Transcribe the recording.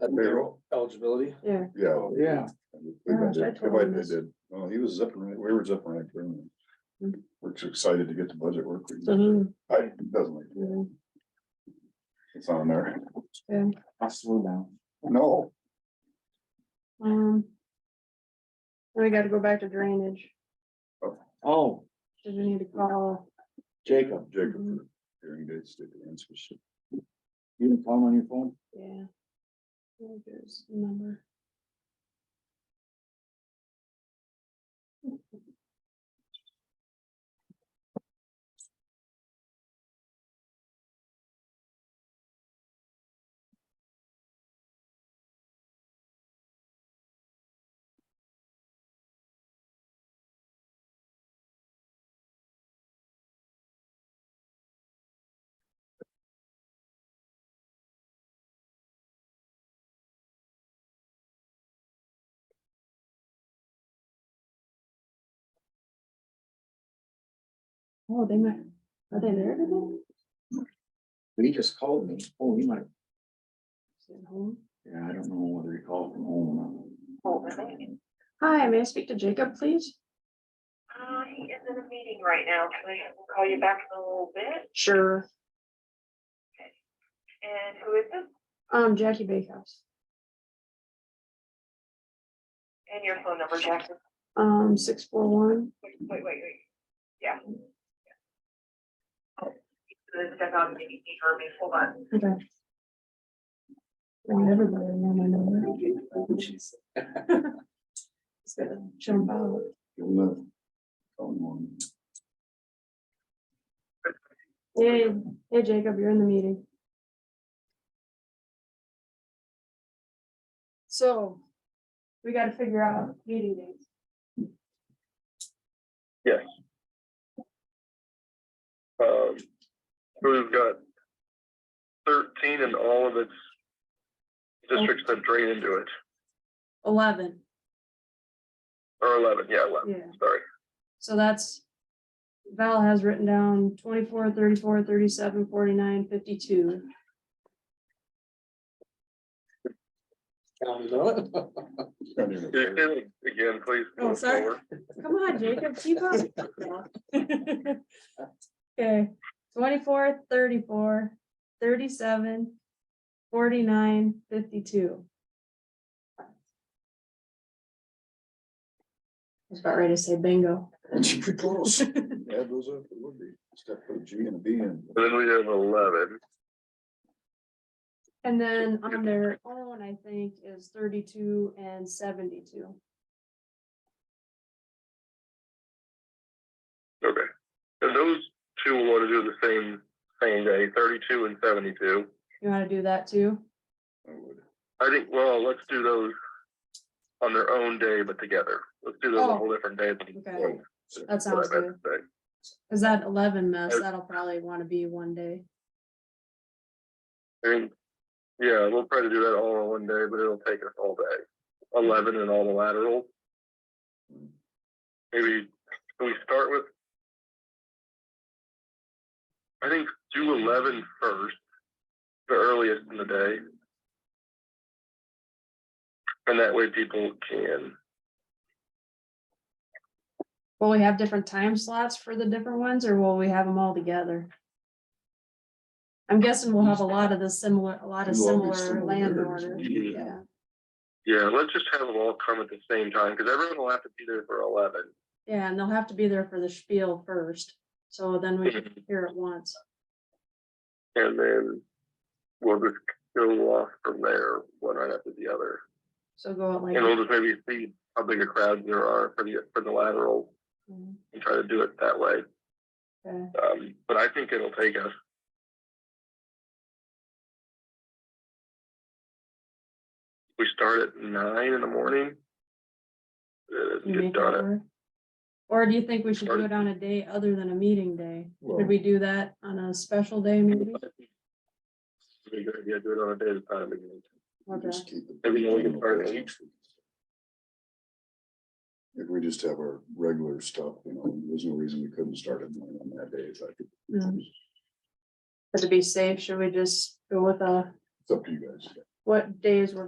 That barrel eligibility. Yeah, Yeah. Oh, Yeah. I believe I Gosh, I did. I totally believe I missed- did. Well, he was zipping right, we were zipping right through. Mhm. Mm-hmm. him. We're just excited to get the budget work. we- so he, I, it doesn't, like- yeah, it's on there. yeah, I slow down. No, um. We gotta go back to drainage, Oh, did we need to call? Jacob, Mm-hmm. Jacob, Mhm. for hearing dates, state the answers. you didn't call him on your phone? Yeah. Where goes the Number. Oh, they might, are they there today? He just called me. Oh, he might, Is it home? yeah, I don't know whether he called from home or not. Hi, may I speak to Jacob, please? Uh, he is in a meeting right now, so I will call you back in a little bit. Sure. And who is this? Um, Jackie Bakehouse, And your phone number, Jackson? um, six four one, Wait, wait, wait, wait. Yeah. Let's step out and maybe for me, hold on. okay. Want everybody to know my number. It's gonna jump out. Give him the phone one. Hey, hey Jacob, you're in the meeting. So, we gotta figure out meeting dates. Um, we've got thirteen and all of its districts that drain into it, Eleven, or eleven, yeah, eleven, yeah, sorry. so that's. Val has written down 24, 34, 37, 49, 52. Counted on it. Can't even- Can you say that Again, please. Oh, sorry. Lower. Come on, Jacob, keep up. Okay, 24, 34, 37, 49, 52. I was about ready to say bingo. It'd be close. Add those up, it would be. Step put a G and a B in. And then we have eleven, And then on their own, I think, is thirty-two and seventy-two. okay. And those two will want to do the same, same day, thirty-two and seventy-two. You wanna do that too? I would. I think, well, let's do those on their own day, but together. Let's do those on Oh. a whole different day. Okay. That That's what I sounds meant to say. Cause that eleven mess, that'll probably wanna be one day. I mean, yeah, we'll try to do that all in one day, but it'll take us all day. Eleven and all the laterals. Maybe, can we start with? I think do eleven first, the earliest in the day. And that way people can, Will we have different time slots for the different ones, or will we have them all together? I'm guessing we'll have a lot of the similar, a lot of We'll all be similar similar. land orders, Mhm. yeah, yeah, let's just have them all come at the same time, because everyone will have to be there for eleven. yeah, and they'll have to be there for the spiel first, so then we can hear it once. And then we'll just go off from there, one right after the other. So go out like. And we'll just maybe see how big a crowd there are for the, for the lateral Mm, and try to do it that way. okay. Um, but I think it'll take us. We start at nine in the morning. Uh, You get make it done at work. Or do you think we should do Started- it on a day other than a meeting day? Well- Could we do that on a special day maybe? Be a good idea, do it on a day at a time again. Okay. Just keep it. Maybe we can start at eight. If we just have our regular stuff, you know, there's no reason we couldn't start it on that day. It's like, Mm. But to be safe, should we just go with a, it's up to you guys. what days were